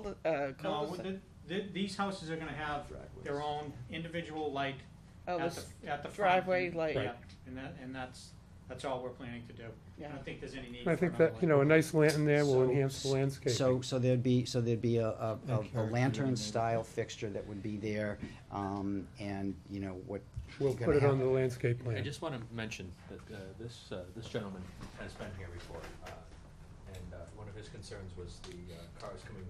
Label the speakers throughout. Speaker 1: cul- uh,
Speaker 2: No,
Speaker 1: cul-de-sac.
Speaker 2: the, the, these houses are gonna have their own individual light
Speaker 1: Oh,
Speaker 2: at the,
Speaker 1: this-
Speaker 2: at the front.
Speaker 1: driveway
Speaker 2: and-
Speaker 1: light.
Speaker 2: Yeah, and that, and that's, that's all we're planning to do. I
Speaker 1: Yeah.
Speaker 2: don't think there's any need for
Speaker 3: I
Speaker 2: another
Speaker 3: think that, you know, a
Speaker 2: light.
Speaker 3: nice lantern there will
Speaker 4: So-
Speaker 3: enhance the landscape.
Speaker 4: So, so there'd be, so there'd be a, a, a- a
Speaker 5: Encourage
Speaker 4: lantern style
Speaker 5: neighborhood.
Speaker 4: fixture that would be there, um, and, you know, what.
Speaker 3: We'll
Speaker 4: you're
Speaker 3: put it
Speaker 4: gonna
Speaker 3: on the
Speaker 4: have-
Speaker 3: landscape
Speaker 5: I
Speaker 3: plan.
Speaker 5: just want to mention that uh, this, uh, this gentleman has been here before, uh, and uh, one of his concerns was the uh, cars coming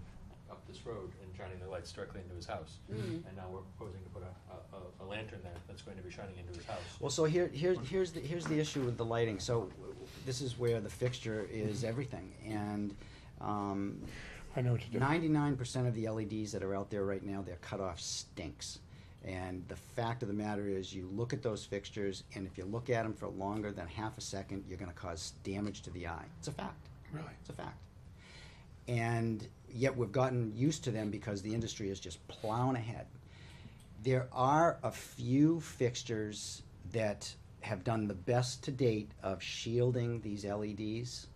Speaker 5: up this road and shining their lights directly into his house. And now we're proposing to put a- a, a, a lantern there that's going to be shining into his house.
Speaker 4: Well, so here, here, here's the, here's the issue with the lighting, so w- w- this is where the fixture is everything, and, um,
Speaker 3: I know what to do.
Speaker 4: ninety-nine percent of the LEDs that are out there right now, their cutoff stinks. And the fact of the matter is, you look at those fixtures, and if you look at them for longer than half a second, you're gonna cause damage to the eye. It's a fact.
Speaker 3: Really?
Speaker 4: It's a fact. And yet we've gotten used to them because the industry is just plowing ahead. There are a few fixtures that have done the best to date of shielding these LEDs.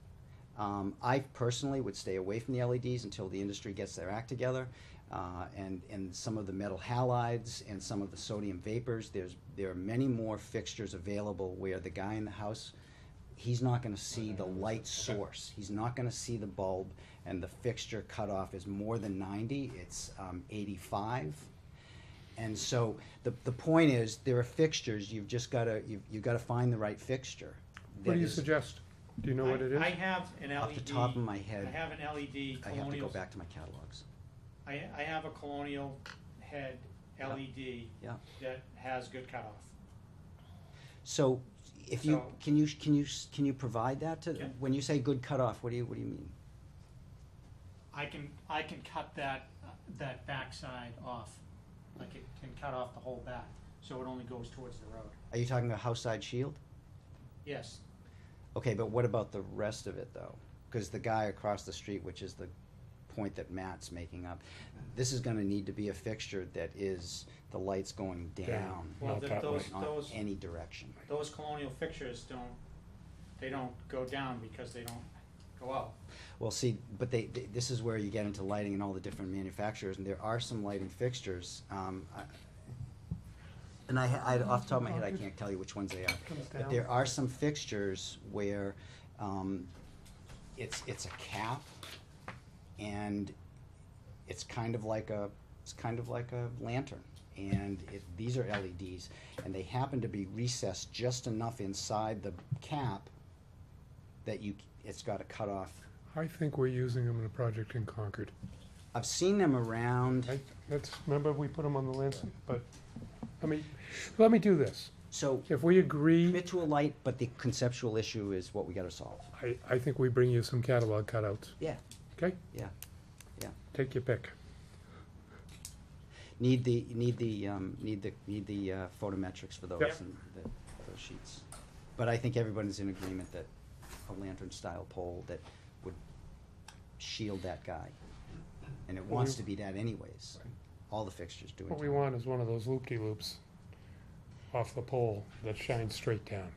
Speaker 4: Um, I personally would stay away from the LEDs until the industry gets their act together. Uh, and, and some of the metal halides and some of the sodium vapors, there's, there are many more fixtures available where the guy in the house, he's not gonna see the light source. He's not gonna see the bulb and the fixture cutoff is more than ninety, it's, um, eighty-five. And so the, the point is, there are fixtures, you've just gotta, you've, you've gotta find the right fixture.
Speaker 3: What
Speaker 4: that
Speaker 3: do you
Speaker 4: is-
Speaker 3: suggest? Do you know what it
Speaker 2: I-
Speaker 3: is?
Speaker 2: I have an LED.
Speaker 4: Off the top of my head,
Speaker 2: I have an LED
Speaker 4: I have to go
Speaker 2: colonial,
Speaker 4: back to my catalogs.
Speaker 2: I, I have a colonial head LED
Speaker 4: Yeah.
Speaker 2: that has good cutoff.
Speaker 4: So if you,
Speaker 2: So-
Speaker 4: can you, can you, can you provide that to,
Speaker 2: Yeah.
Speaker 4: when you say good cutoff, what do you, what do you mean?
Speaker 2: I can, I can cut that, that backside off, like it can cut off the whole back, so it only goes towards the road.
Speaker 4: Are you talking about house side shield?
Speaker 2: Yes,
Speaker 4: Okay, but what about the rest of it though? Because the guy across the street, which is the point that Matt's making up, this is gonna need to be a fixture that is, the light's going down,
Speaker 2: well,
Speaker 3: Not
Speaker 2: th-
Speaker 3: that
Speaker 2: those,
Speaker 4: not
Speaker 2: those,
Speaker 4: any direction.
Speaker 2: those colonial fixtures don't, they don't go down because they don't go out.
Speaker 4: Well, see, but they, th this is where you get into lighting and all the different manufacturers, and there are some lighting fixtures, um, I, and I, I, off the top of my head, I can't tell you which ones they are, but there are some fixtures where, um, it's, it's a cap, and it's kind of like a, it's kind of like a lantern, and it, these are LEDs, and they happen to be recessed just enough inside the cap that you, c- it's got a cutoff
Speaker 3: I think we're using them in a project in Concord.
Speaker 4: I've seen them around.
Speaker 3: I, that's, remember, we put them on the landscape, but, I mean, let me do this.
Speaker 4: So
Speaker 3: If we agree,
Speaker 4: commit to a light, but the conceptual issue is what we gotta solve.
Speaker 3: I, I think we bring you some catalog cutouts,
Speaker 4: Yeah.
Speaker 3: okay?
Speaker 4: Yeah, yeah.
Speaker 3: Take your pick.
Speaker 4: Need the, need the, um, need the, need the, uh, photometrics for those
Speaker 3: Yep.
Speaker 4: and the, those sheets. But I think everybody's in agreement that a lantern-style pole that would shield that guy. And it wants to be that anyways. All the fixtures do it.
Speaker 3: What Mm-hmm. we want is one of those loop-de-loops off the pole that shines straight down.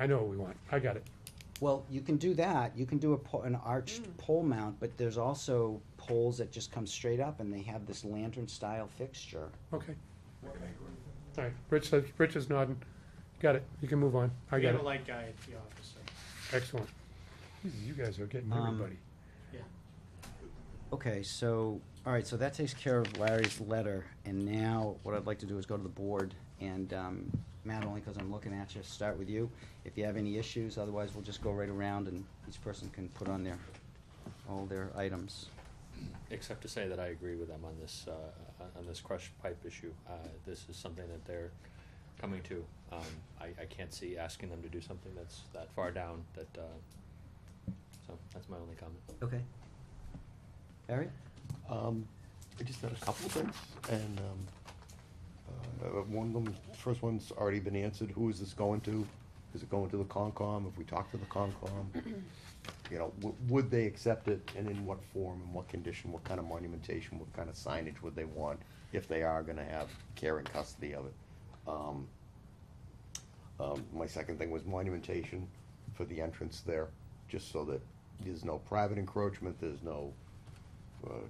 Speaker 3: I know what we want. I got it.
Speaker 4: Well, you can do that. You can do a po- an arched pole mount, but there's also poles that just come straight up and they have this lantern-style fixture.
Speaker 3: Okay. All right, Rich, says- Rich is nodding. Got it. You can move on. I
Speaker 2: We
Speaker 3: got
Speaker 2: have a
Speaker 3: it.
Speaker 2: light guy at uh, the office, so,
Speaker 3: Excellent. Jeez, You guys are getting
Speaker 4: Um,
Speaker 3: everybody.
Speaker 2: yeah.
Speaker 4: Okay, so, all right, so that takes care of Larry's letter, and now what I'd like to do is go to the board, and, um, Matt, only because I'm looking at you, start with you, if you have any issues, otherwise we'll just go right around and each person can put on their, all their items.
Speaker 5: Except to say that I agree with them on this, uh, on- on this crush pipe issue. Uh, This is something that they're coming to. Um, I, I can't see asking them to do something that's that far down, that, uh, so that's my only comment.
Speaker 4: Okay. Larry?
Speaker 6: Um, I just had a couple of things, and, um, uh, one of them, first one's already been answered, who is this going to? Is it going to the Concom, if we talk to the Concom? You know, w- would they accept it, and in what form, and what condition, what kind of monumentation, what kind of signage would they want, if they are gonna have care and custody of it? Um, um, my second thing was monumentation for the entrance there, just so that there's no private encroachment, there's no, uh,